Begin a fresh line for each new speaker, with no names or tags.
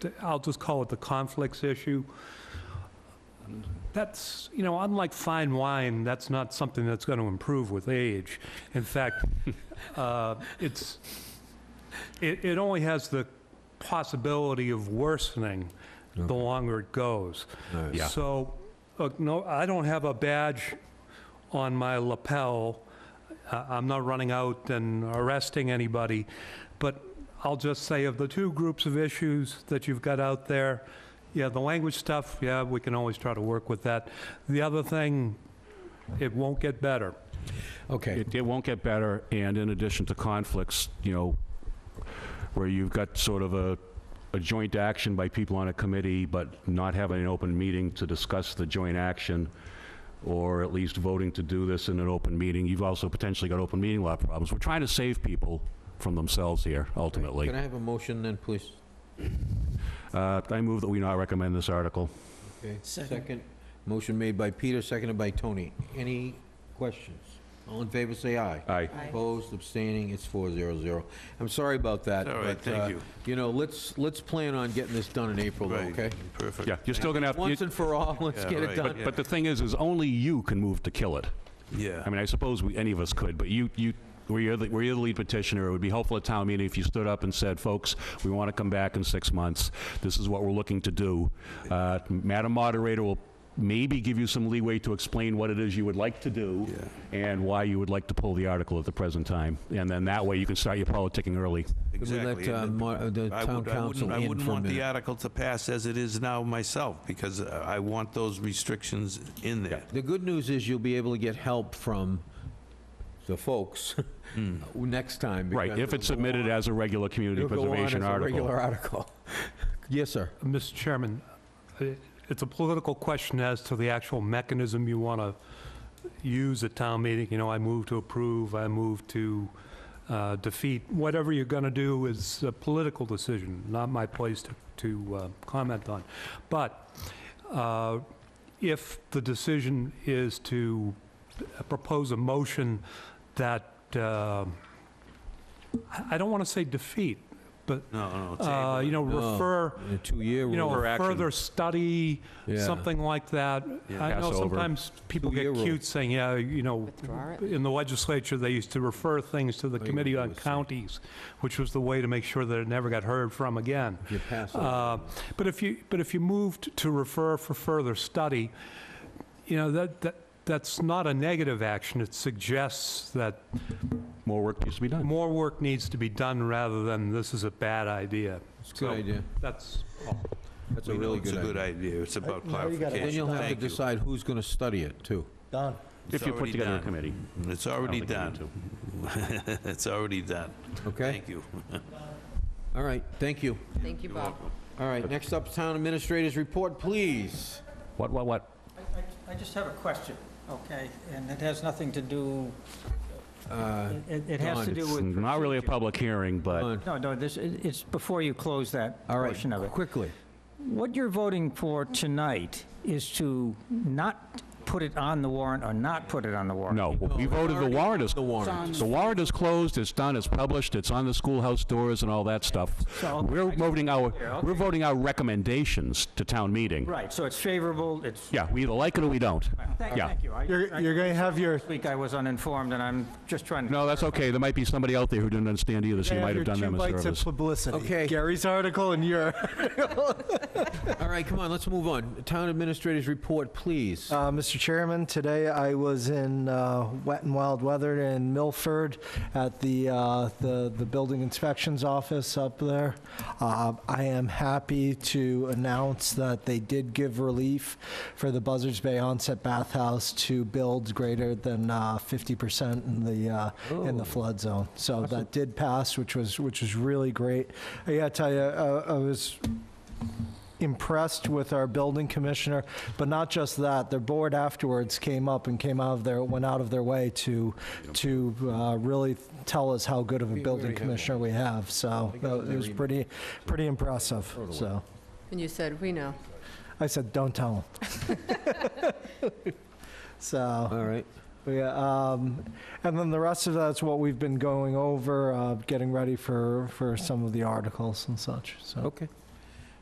th- I'll just call it the conflicts issue. That's, you know, unlike fine wine, that's not something that's going to improve with age. In fact, uh, it's, it, it only has the possibility of worsening the longer it goes.
Yeah.
So, look, no, I don't have a badge on my lapel. I- I'm not running out and arresting anybody, but I'll just say of the two groups of issues that you've got out there, yeah, the language stuff, yeah, we can always try to work with that. The other thing, it won't get better.
Okay,
It, it won't get better, and in addition to conflicts, you know, where you've got sort of a, a joint action by people on a committee, but not having an open meeting to discuss the joint action, or at least voting to do this in an open meeting, you've also potentially got open meeting law problems. We're trying to save people from themselves here, ultimately.
Can I have a motion then, please?
Uh, I move that we not recommend this article.
Okay.
Second.
Motion made by Peter, seconded by Tony. Any questions? All in favor, say aye.
Aye.
Opposed, abstaining, it's 400. I'm sorry about that.
All right,
but,
thank
uh,
you.
You know, let's, let's plan on getting this done in April, though,
Right,
okay?
Perfect.
Yeah, you're still gonna have,
Once
you-
and for all, let's
Yeah,
get it
right,
done.
yeah.
but the thing is, is only you can move to kill it.
Yeah.
I mean, I suppose we, any of us could, but you, you, were you, the- were you the lead petitioner? It would be helpful at town meeting if you stood up and said, folks, we want to come back in six months. This is what we're looking to do. Uh, Madam Moderator will maybe give you some leeway to explain what it is you would like to do and why you would like to pull the article at the present time. And then that way you can start your politicking early.
Can we
Exactly.
let uh,
And
Mar- uh, the
I
town
would- I wouldn't-
council
I
in
wouldn't
for a
want the
minute?
article to pass as it is now myself, because uh, I want those restrictions in there.
The good news is you'll be able to get help from the folks next time.
Hmm. Right,
because
if it's
it'll go
submitted
on-
as a regular community
it'll go on
preservation
as a
article.
regular article. Yes, sir.
Mr. Chairman, i- it's a political question as to the actual mechanism you want to use at town meeting. You know, I move to approve, I move to uh, defeat. Whatever you're going to do is a political decision, not my place to- to uh, comment on. But uh, if the decision is to propose a motion that, uh, I I don't want to say defeat, but,
No, no,
uh,
table
you
it. Oh.
know,
No.
refer
In a two-year
you know,
rule.
a
action.
further study,
Yeah.
something like that.
Yeah.
I
Pass
know
over.
sometimes people get
Two-year rule.
cute saying, yeah, you know,
Withdraw it?
in the legislature, they used to refer things to the
you
Committee
would
on
do is say-
Counties, which was the way to make sure that it never got heard from again.
You pass it.
Uh, But if you, but if you moved to refer for further study, you know, that, that that's not a negative action. It suggests that
More work needs to be done.
more work needs to be done rather than this is a bad idea.
It's a
so-
good idea.
That's all.
That's a
We know
really
It's
good
a good
idea.
idea. It's about
now you gotta-
clarification.
Then you'll have to
Thank you.
decide who's going to study it, too.
Done.
If you put
already
together a
done.
committee.
It's
I don't
already
think you need
done.
to.
It's already done.
Okay?
Thank you.
All right, thank you.
Thank you, Bob.
All right, next up, Town Administrator's Report, please.
What, what, what?
I- I- I just have a question, okay? And it has nothing to do,
Uh,
it- it it has
Don,
to do with...
Not really a
procedure.
public hearing, but.
Don,
No, no, this, it- it's before you close that
All right,
portion of it.
quickly.
What you're voting for tonight is to not put it on the warrant or not put it on the warrant.
No, we voted, the warrant is,
The warrant.
the warrant is closed, it's done, it's published, it's on the schoolhouse doors and all that stuff.
So-
We're voting our,
Yeah,
we're voting our recommendations to town meeting.
Right, so it's favorable, it's...
Yeah, we either like it or we don't.
Thank
Yeah.
thank you. I-
You're,
I-
you're going to have your,
This week I was uninformed, and I'm just trying to...
No, that's okay, there might be somebody out there who didn't understand either, so you
gonna
might have
have your
done
two
them a
bites of
service.
publicity.
Okay.
Gary's article and your.
All right, come on, let's move on. Town Administrator's Report, please.
Uh, Mr. Chairman, today I was in uh, wet and wild weather in Milford at the, uh, the, the building inspections office up there. Uh, I am happy to announce that they did give relief for the Buzzards Bay Onset Bathhouse to build greater than uh, 50% in the, uh, in the flood zone. So that did pass, which was, which was really great. I gotta tell you, uh, I was impressed with our building commissioner, but not just that, their board afterwards came up and came out of their, went out of their way to, to uh, really tell us how good of a building commissioner we have, so that- it was pretty, pretty impressive, so.
And you said, we know.
I said, don't tell them. So.
All right.
Yeah, um, and then the rest of that's what we've been going over, uh, getting ready for, for some of the articles and such, so.
Okay.